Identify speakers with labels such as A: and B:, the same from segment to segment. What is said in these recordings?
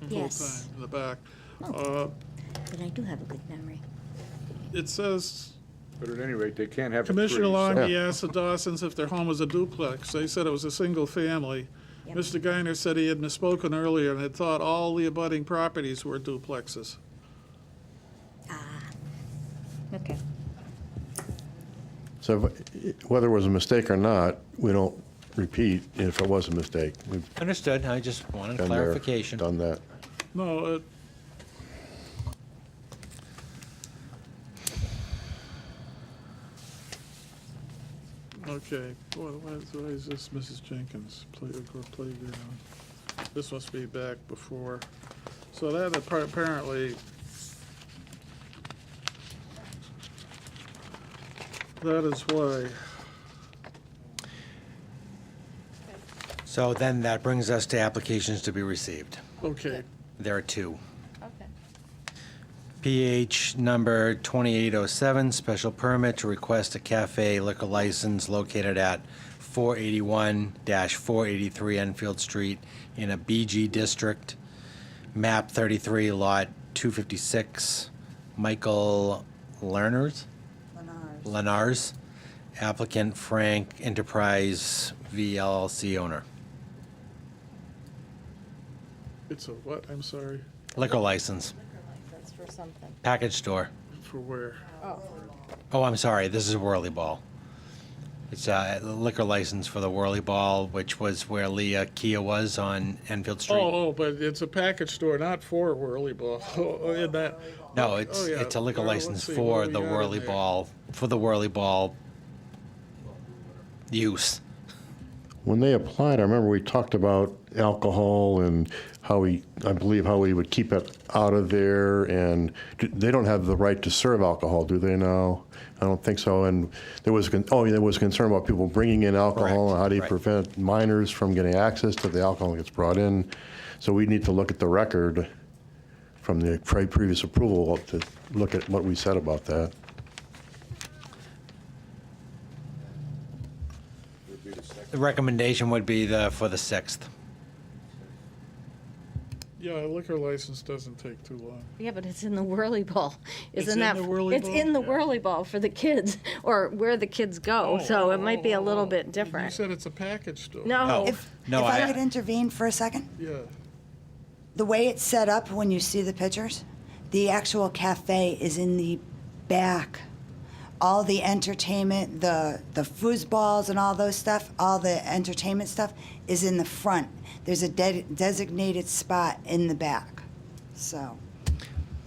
A: the whole
B: Yes.
A: thing in the back. Uh,
B: But I do have a good memory.
A: It says,
C: But at any rate, they can't have it free.
A: Commissioner
C: so-
A: Longy asked the Dawsons if their home was a duplex. They said it was a single family.
B: Yep.
A: Mr. Guiner said he had misspoken earlier and had thought all the abutting properties were duplexes.
B: Okay.
D: So if- whether it was a mistake or not, we don't repeat if it was a mistake. We've
E: Understood, I just wanted
D: been there,
E: clarification.
D: Done that.
A: No, e- it, okay, boy, why is, why is this Mrs. Jenkins play, or playground? This must be back before, so that appa- apparently. That is why,
E: So then that brings us to applications to be received.
A: okay,
E: There are two.
F: Okay.
E: PH number 2807, special permit to request a cafe liquor license located at 481-483 Enfield Street in a BG district, map 33, lot 256, Michael Lerner's? Lenars, applicant Frank Enterprise VLC owner.
A: it's a what, I'm sorry,
E: Liquor license,
F: That's for something.
E: package store.
A: for where?
E: Oh, I'm sorry, this is Whirly Ball. It's a liquor license for the Whirly Ball, which was where Leah Kia was on Enfield Street.
A: Oh, oh, but it's a package store, not for Whirly Ball, oh, in that,
E: No, it's,
A: oh, yeah.
E: it's a liquor
A: Well, let's
E: license
A: see,
E: for
A: what do
E: the
A: we got in
E: Whirly
A: there?
E: Ball, for the Whirly Ball use.
D: When they applied, I remember we talked about alcohol and how we, I believe how we would keep it out of there. And do- they don't have the right to serve alcohol, do they now? I don't think so. And there was, con- oh, yeah, there was concern about people bringing in alcohol.
E: Correct,
D: and How do you
E: right.
D: prevent minors from getting access to the alcohol that gets brought in? So we need to look at the record from the pre- previous approval to look at what we said about that.
E: The recommendation would be the, for the 6th.
A: yeah, a liquor license doesn't take too long.
F: Yeah, but it's in the whirly ball,
A: It's
F: isn't
A: in
F: that?
A: the whirly
F: It's
A: ball?
F: in the whirly ball for the kids, or where the kids go,
A: Oh,
F: so it might be a little bit
A: You
F: different.
A: said it's a package store.
F: No,
E: No.
G: If,
E: No,
G: if I,
E: I-
G: could intervene for a second,
A: Yeah,
G: the way it's set up when you see the pictures, the actual cafe is in the back. All the entertainment, the the foosballs and all those stuff, all the entertainment stuff is in the front. There's a de- designated spot in the back. So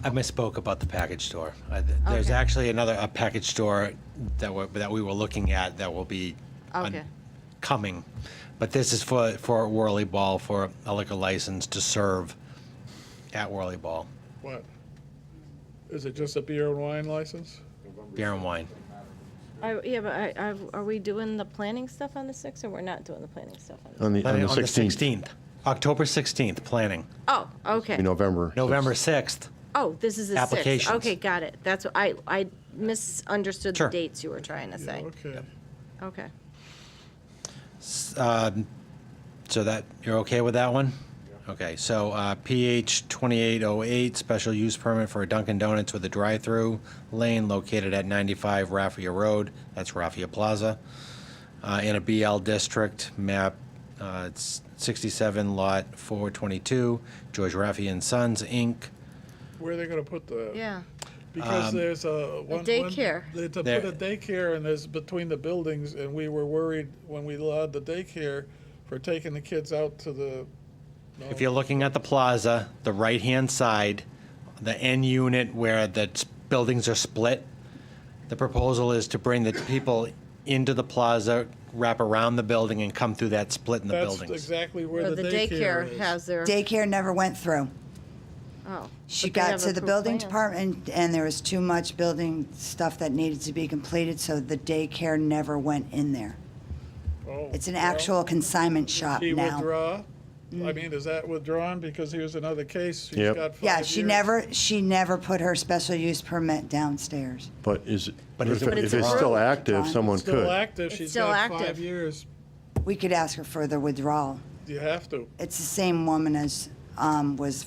E: I misspoke about the package store. I- th- There's
F: Okay.
E: actually another, a package store that we, that we were looking at that will be on-
F: Okay.
E: coming. But this is for, for Whirly Ball, for a liquor license to serve at Whirly Ball,
A: what? Is it just a beer and wine license?
E: beer and wine.
F: I- yeah, but I, I- are we doing the planning stuff on the sixth, or we're not doing the planning stuff on the?
D: On the, on the 16th,
E: 16th. October 16th, planning.
F: Oh, okay.
D: in November.
E: November 6th.
F: Oh, this is the sixth.
E: Applications.
F: Okay, got it. That's, what I, I misunderstood the
E: Sure.
F: dates you were trying to say.
A: Okay,
F: Okay.
E: Um, So that, you're okay with that one? Okay, so uh, PH 2808, special use permit for a Dunkin' Donuts with a drive-through lane located at 95 Raffia Road, that's Raffia Plaza, uh, in a BL district, map uh, it's 67, lot 422, George Raffia and Sons, Inc.
A: where are they gonna put the?
F: Yeah.
A: Because
G: Um,
A: there's a. one- one-
F: daycare.
A: They had to
E: There-
A: put a daycare and there's between the buildings and we were worried when we allowed the daycare for taking the kids out to the.
E: If you're looking at the plaza, the right-hand side, the end unit where the s- buildings are split, the proposal is to bring the people into the plaza, wrap around the building, and come through that split in the
A: That's
E: buildings.
A: exactly
F: So
A: where
F: Uh, the
A: the daycare
F: daycare
A: is.
F: has their,
G: daycare never went through.
F: oh.
G: She
F: but they
G: got
F: have
G: to the
F: approved
G: building
F: plans.
G: department and there was too much building stuff that needed to be completed, so the daycare never went in there.
A: Oh,
G: It's an
A: well,
G: actual consignment shop
A: She
G: now.
A: withdraw? I mean, is that withdrawn? Because here's another case. She's
D: Yep.
A: got
G: Yeah,
A: five
G: she
A: years.
G: never, she never put her special use permit downstairs.
D: But is,
E: But
D: but
E: is
D: if it-
E: it
D: if it's
E: withdrawn?
D: still active,
G: Withdrawn.
D: someone
A: Still
D: could.
A: active,
F: It's
A: she's
F: still
A: got
F: active.
A: five years.
G: We could ask her for the withdrawal.
A: You have to.
G: It's the same woman as um, was